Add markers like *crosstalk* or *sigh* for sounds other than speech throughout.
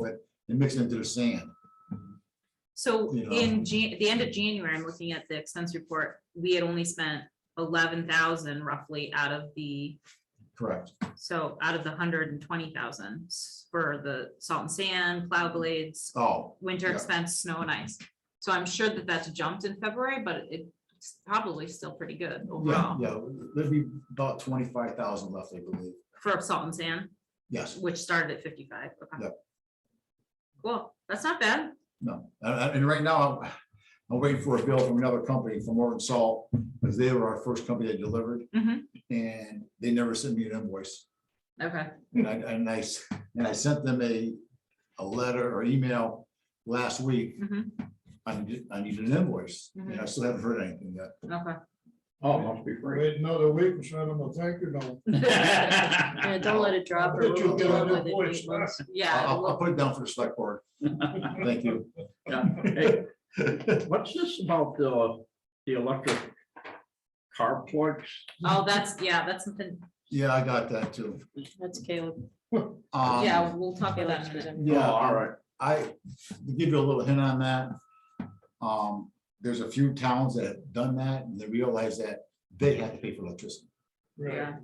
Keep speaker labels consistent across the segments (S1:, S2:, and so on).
S1: with and mix it into the sand.
S2: So
S1: You know. um,
S2: in Jan, the end of January, I'm looking at the expense report, we had only spent eleven thousand roughly out of the,
S1: Correct.
S2: so out of the hundred and twenty thousand for the salt and sand, plow blades,
S1: Oh,
S2: winter
S1: Mm-hmm. Yeah.
S2: expense, snow and ice. So I'm sure that that's jumped in February, but it's probably still pretty good
S1: yeah,
S2: overall
S1: yeah, there'd be about twenty-five thousand left, I believe.
S2: for salt and sand,
S1: Yes,
S2: which started at fifty-five. Okay.
S1: Yeah.
S2: Cool, that's not bad.
S1: no, and, and right now, I'm- I'm waiting for a bill from another company from Oregon Salt, because they were our first company that delivered,
S2: Mhm.
S1: and they never sent me an invoice.
S2: Okay,
S1: And I, and I, s- and I sent them a, a letter or email last week,
S2: Mhm.
S1: I need, I need an invoice, and I
S2: Mhm.
S1: still haven't heard anything yet.
S2: okay.
S3: Oh, must be free.
S4: Wait another week and send them a thank you note.
S3: *laughs*
S2: *laughs* Yeah, don't let it drop. or
S4: Bet you
S2: we'll
S4: get
S2: deal
S4: a new
S2: with it
S4: voice,
S2: later.
S4: huh?
S2: Yeah.
S1: I'll,
S2: we'll-
S1: I'll put it down for the select board, *laughs* thank you.
S3: Yeah. Hey, What's this about the, the electric car plugs?
S2: Oh, that's, yeah, that's something,
S1: Yeah, I got that too.
S5: That's Caleb.
S1: Um,
S2: yeah, we'll talk about that in a minute.
S5: Caleb.
S3: Oh,
S1: Yeah,
S3: All right.
S1: I, to give you a little hint on that, um, there's a few towns that have done that, and they realize that they have to pay for electricity.
S2: Yeah.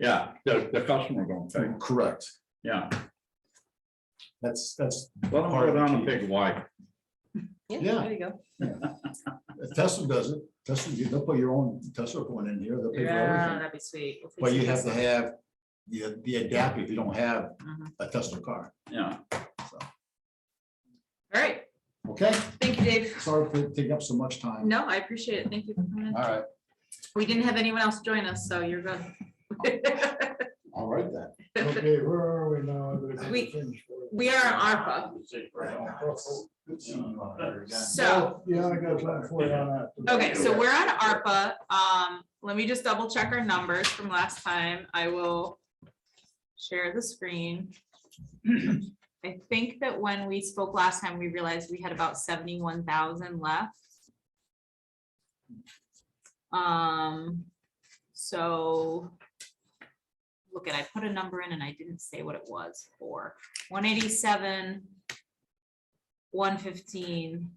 S3: Yeah, the, the customer gonna pay.
S1: Correct.
S3: Yeah.
S1: That's, that's,
S3: Let them
S1: Part of
S3: go
S1: the
S3: down and
S1: key.
S3: pick why.
S1: Yeah.
S5: There you go.
S1: Tesla does it, Tesla, you- they'll put your own Tesla going in here, they'll pay for
S2: Yeah,
S1: everything.
S2: that'd be sweet. We'll fix
S1: But you
S2: it.
S1: have to have the, the adapter if you don't have
S2: Mhm.
S1: a Tesla car,
S3: Yeah.
S1: so,
S2: All right,
S1: okay?
S2: thank you, Dave.
S1: Sorry for taking up so much time.
S2: No, I appreciate it. Thank you. for coming in.
S1: All right,
S2: We didn't have anyone else join us, so you're good.
S1: all right then.
S4: Okay, where are we now?
S2: *laughs* We- We are on
S1: Good seeing you out there
S2: ARPA,
S1: again.
S2: so,
S4: Yeah, I got something for you on that.
S2: okay, so we're on ARPA. Um, let me just double check our numbers from last time. I will share the screen. *clears throat* I think that when we spoke last time, we realized we had about seventy-one thousand left. Um, so. Look at, I put a number in and I didn't say what it was for, one eighty-seven. One fifteen.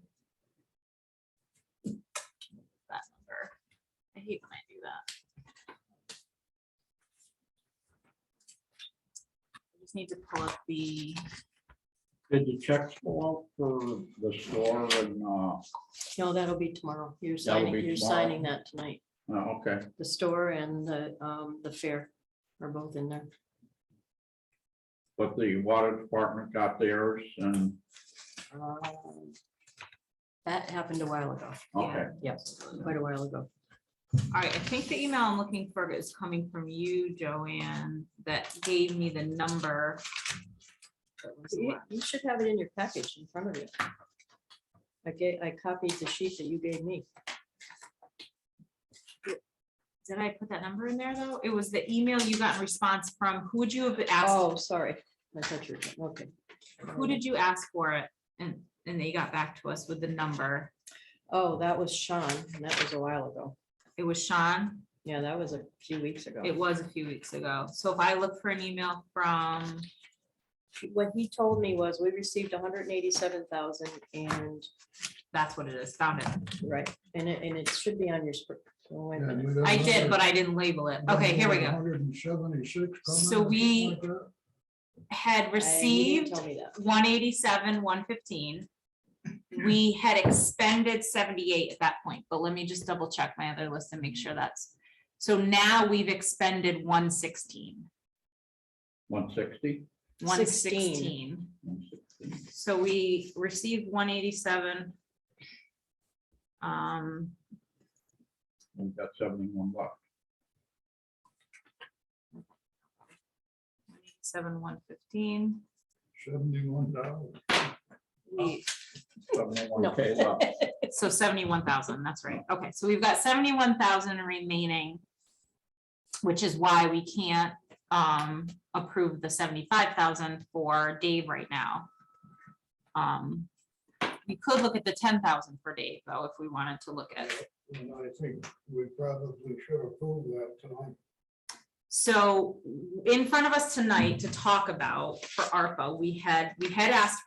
S2: That number. I hate when I do that. I Just need to pull up the.
S3: Did the checks go out for the store and, uh,
S5: No, that'll be tomorrow. You're
S3: That will
S5: signing,
S3: be
S5: you're
S3: tomorrow.
S5: signing that tonight.
S3: oh, okay,
S5: The store and the, um, the fair are both in there.
S3: but the water department got theirs and,
S5: Um, That happened a while ago.
S3: okay.
S5: Yes, quite a while ago.
S2: All right, I think the email I'm looking for is coming from you, Joanne, that gave me the number. that was
S5: You
S2: left.
S5: you should have it in your package in front of you. I gave, I copied the sheet that you gave me.
S2: Did I put that number in there, though? It was the email you got in response from, who would you have asked,
S5: Oh, sorry. I thought you were, okay.
S2: who did you ask for it? And, and they got back to us with the number.
S5: Oh, that was Sean. and That was a while ago.
S2: It was Sean.
S5: Yeah, that was a few weeks ago.
S2: It was a few weeks ago. So if I look for an email from,
S5: What he told me was we received hundred and eighty-seven thousand and
S2: that's what it is, found it.
S5: Right, and it, and it should be on your. sp- oh, wait a minute.
S2: I did, but I didn't label it. Okay, here we go.
S4: Hundred and seventy-six.
S2: So we- Had
S5: I- he didn't
S2: received
S5: Tell me that.
S2: one eighty-seven, one fifteen. We had expended seventy-eight at that point, but let me just double check my other list and make sure that's. So now we've expended one sixteen,
S3: One sixty?
S2: one sixteen.
S5: Sixteen.
S2: So we received one eighty-seven. Um,
S3: We've got seventy-one bucks.
S2: seven, one fifteen.
S4: Seventy-one dollars.
S2: We,
S3: Seventy-one K left.
S2: so seventy-one thousand, that's right. Okay, so we've got seventy-one thousand remaining. Which is why we can't um approve the seventy-five thousand for Dave right now. Um, we could look at the ten thousand for Dave, though, if we wanted to look at.
S4: And I think we probably should approve that tonight.
S2: So in front of us tonight to talk about for ARPA, we had, we had asked for